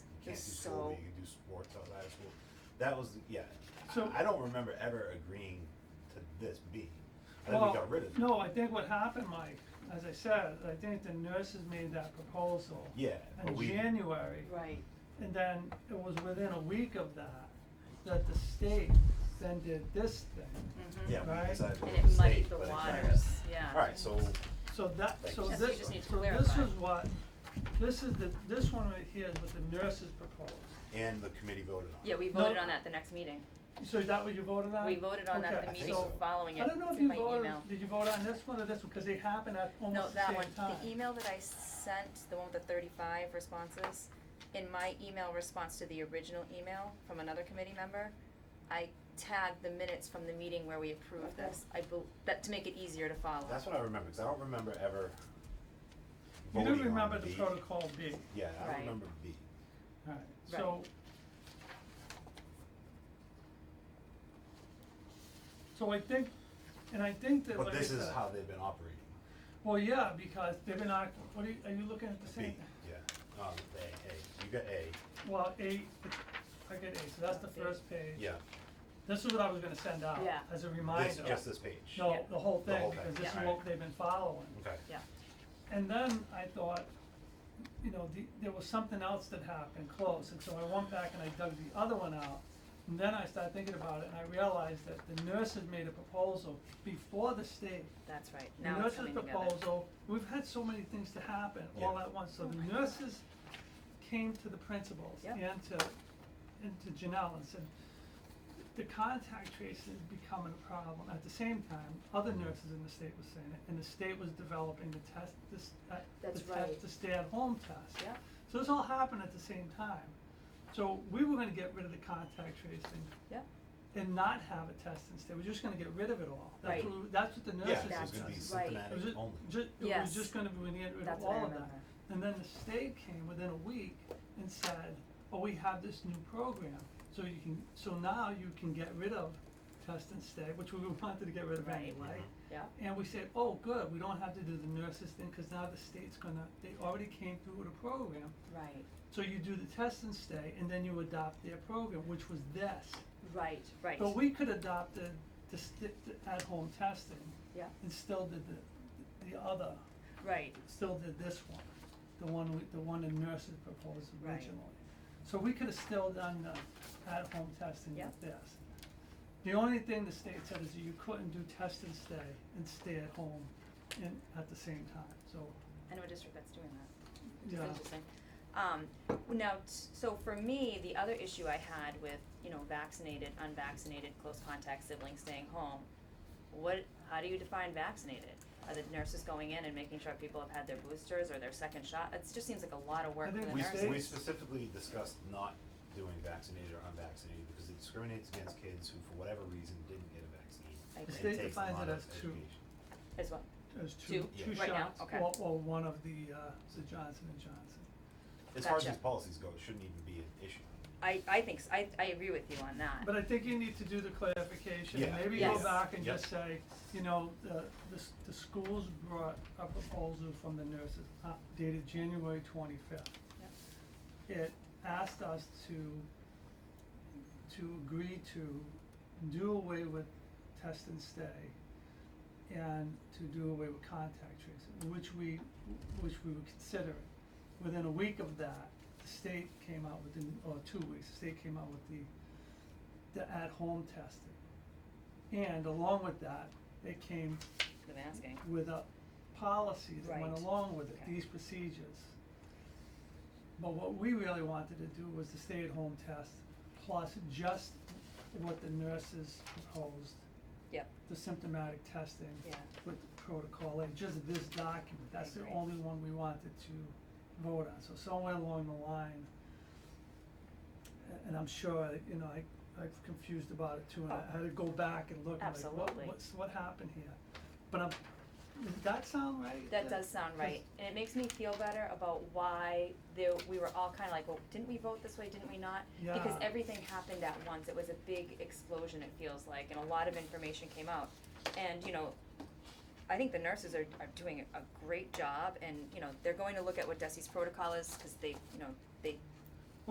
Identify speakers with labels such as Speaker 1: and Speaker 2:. Speaker 1: can't do school,
Speaker 2: So-
Speaker 1: but you can do sports outside of school. That was, yeah, I-
Speaker 3: So-
Speaker 1: I don't remember ever agreeing to this B. I think we
Speaker 3: Well,
Speaker 1: got rid of it.
Speaker 3: No, I think what happened, Mike, as I said, I think the nurses made that proposal
Speaker 1: Yeah, but
Speaker 3: in
Speaker 1: we,
Speaker 3: January,
Speaker 2: Right,
Speaker 3: and then it was within a week of that, that the state then did this thing.
Speaker 2: mhm.
Speaker 1: yeah, we
Speaker 3: Right.
Speaker 2: And
Speaker 1: decided to
Speaker 2: it
Speaker 1: state,
Speaker 2: muddied the
Speaker 1: but it kinda-
Speaker 2: waters, yeah.
Speaker 1: Alright, so,
Speaker 3: So that,
Speaker 1: Thank
Speaker 3: so
Speaker 1: you. Yes,
Speaker 3: this,
Speaker 1: we
Speaker 3: so this
Speaker 2: just need to
Speaker 3: is
Speaker 2: clarify.
Speaker 3: what, this is the, this one right here is what the nurses proposed.
Speaker 1: and the committee voted on it.
Speaker 2: Yeah, we
Speaker 3: No.
Speaker 2: voted on that the next meeting.
Speaker 3: So is that what you voted on?
Speaker 2: We voted on that at
Speaker 3: Okay.
Speaker 2: the
Speaker 1: I think
Speaker 2: meeting
Speaker 1: so.
Speaker 2: following it.
Speaker 3: I don't know if
Speaker 2: It's
Speaker 3: you
Speaker 2: by
Speaker 3: voted,
Speaker 2: email.
Speaker 3: did you vote on this one or this one, cause they happen at
Speaker 2: No,
Speaker 3: almost the
Speaker 2: that
Speaker 3: same
Speaker 2: one,
Speaker 3: time.
Speaker 2: the email that I sent, the one with the thirty-five responses, in my email response to the original email from another committee member, I tagged the minutes from the meeting where we approved this, I bel- that, to make it easier to follow.
Speaker 1: That's what I remember, cause I don't remember ever
Speaker 3: You
Speaker 1: voting on
Speaker 3: do remember the
Speaker 1: B.
Speaker 3: protocol B,
Speaker 1: Yeah, I
Speaker 2: Right.
Speaker 1: remember B.
Speaker 3: alright,
Speaker 2: Right.
Speaker 3: so. So I think, and I think that,
Speaker 1: But
Speaker 3: like I
Speaker 1: this is
Speaker 3: said-
Speaker 1: how they've been operating,
Speaker 3: well, yeah, because they've been, act- what are you, are you looking at the
Speaker 1: B,
Speaker 3: same?
Speaker 1: yeah, um, A, A, you got A,
Speaker 3: Well, A, I get A, so that's the first page.
Speaker 1: yeah,
Speaker 3: This is what I was gonna send out,
Speaker 2: Yeah.
Speaker 3: as a reminder.
Speaker 1: this, just this page, okay.
Speaker 3: No, the whole
Speaker 1: The
Speaker 3: thing,
Speaker 1: whole
Speaker 3: because
Speaker 1: thing,
Speaker 3: this is
Speaker 1: yeah.
Speaker 3: what they've been following.
Speaker 2: Yeah,
Speaker 3: And then I thought, you know, the, there was something else that happened close, and so I went back and I dug the other one out. And then I started thinking about it, and I realized that the nurses made a proposal before the state.
Speaker 2: that's right,
Speaker 3: The
Speaker 2: now it's
Speaker 3: nurses
Speaker 2: coming together.
Speaker 3: proposal, we've had so many things to happen all
Speaker 1: Yeah.
Speaker 3: at once, so the nurses came to the principals
Speaker 2: Oh Yep.
Speaker 3: and to, and to Janelle and said, the contact tracing is becoming a problem. At the same time, other nurses in the state were saying it, and the state was developing the test, this, uh, the
Speaker 2: That's
Speaker 3: test,
Speaker 2: right.
Speaker 3: the stay-at-home test.
Speaker 2: Yep.
Speaker 3: So this all happened at the same time. So we were gonna get rid of the contact tracing
Speaker 2: Yep,
Speaker 3: and not have a test instead, we're just gonna get rid of it all. That's
Speaker 2: Right.
Speaker 3: what, we- that's what the
Speaker 1: Yeah,
Speaker 3: nurses
Speaker 1: so it's
Speaker 2: That's
Speaker 1: gonna be
Speaker 2: right.
Speaker 3: it was
Speaker 1: symptomatic
Speaker 3: just,
Speaker 1: only.
Speaker 3: ju- it was
Speaker 2: Yes.
Speaker 3: just gonna be, we needed rid of
Speaker 2: That's what I
Speaker 3: all of that.
Speaker 2: remember.
Speaker 3: And then the state came within a week and said, oh, we have this new program, so you can, so now you can get rid of test and stay, which we wanted to get rid of
Speaker 2: Right.
Speaker 3: anyway.
Speaker 2: yep,
Speaker 3: And we said, oh, good, we don't have to do the nurses thing, cause now the state's gonna, they already came through with a program.
Speaker 2: right,
Speaker 3: So you do the test and stay, and then you adopt their program, which was this.
Speaker 2: right, right,
Speaker 3: But we could adopt the, the sti- the at-home testing
Speaker 2: yep,
Speaker 3: and still did the, the other
Speaker 2: right,
Speaker 3: still did this one, the one we, the one the nurses proposed
Speaker 2: Right.
Speaker 3: originally. So we could have still done the at-home testing
Speaker 2: Yep.
Speaker 3: with this. The only thing the state said is you couldn't do test and stay and stay at home and at the same time, so,
Speaker 2: I know a district that's doing that. It's
Speaker 3: yeah.
Speaker 2: interesting. Um, now, t- so for me, the other issue I had with, you know, vaccinated, unvaccinated, close contact siblings staying home, what, how do you define vaccinated? Are the nurses going in and making sure people have had their boosters or their second shot? It just seems like a lot of work
Speaker 3: I
Speaker 2: for
Speaker 3: think
Speaker 2: the
Speaker 1: We,
Speaker 3: the
Speaker 2: nurses.
Speaker 3: state-
Speaker 1: we specifically discussed not doing vaccinated or unvaccinated because it discriminates against kids who, for whatever reason, didn't get a vaccine.
Speaker 2: I
Speaker 1: and
Speaker 2: The
Speaker 3: state
Speaker 1: takes a
Speaker 3: defines
Speaker 1: lot
Speaker 3: it
Speaker 1: of
Speaker 3: as two.
Speaker 1: education.
Speaker 2: As well,
Speaker 3: There's two,
Speaker 1: Two?
Speaker 3: two
Speaker 1: Yeah.
Speaker 2: Right now?
Speaker 3: shots,
Speaker 2: Okay.
Speaker 3: or, or one of the, uh, the Johnson and Johnson.
Speaker 1: As far as
Speaker 2: Gotcha.
Speaker 1: these policies go, it shouldn't even be an issue.
Speaker 2: I, I think, s- I, I agree with you on that.
Speaker 3: But I think you need to do the clarification, and
Speaker 1: Yeah.
Speaker 3: maybe go
Speaker 2: Yes.
Speaker 3: back and
Speaker 1: Yep.
Speaker 3: just say, you know, the, the, s- the schools brought a proposal from the nurses uh, dated January twenty-fifth.
Speaker 2: Yep.
Speaker 3: It asked us to, to agree to do away with test and stay and to do away with contact tracing, which we, which we were considering. Within a week of that, the state came out with, the- or two weeks, the state came out with the, the at-home testing. And along with that, they came
Speaker 2: The masking,
Speaker 3: with a policy that went
Speaker 2: Right.
Speaker 3: along with it,
Speaker 2: Okay.
Speaker 3: these procedures. But what we really wanted to do was the stay-at-home test plus just what the nurses proposed,
Speaker 2: yep,
Speaker 3: the symptomatic testing
Speaker 2: yeah,
Speaker 3: with protocol, and just this document, that's the
Speaker 2: Right, right.
Speaker 3: only one we wanted to vote on, so somewhere along the line. a- And I'm sure, you know, I, I've confused about it too, and I
Speaker 2: Oh.
Speaker 3: had to go back and look, and like, what,
Speaker 2: Absolutely.
Speaker 3: what's, what happened here? But I'm, does that sound right?
Speaker 2: that does sound right, and it makes me feel better about why there, we were all kinda like, well, didn't we vote this way, didn't we not? because
Speaker 3: Yeah.
Speaker 2: everything happened at once. It was a big explosion, it feels like, and a lot of information came out. And, you know, I think the nurses are, are doing a great job and, you know, they're going to look at what DESI's protocol is because they, you know, they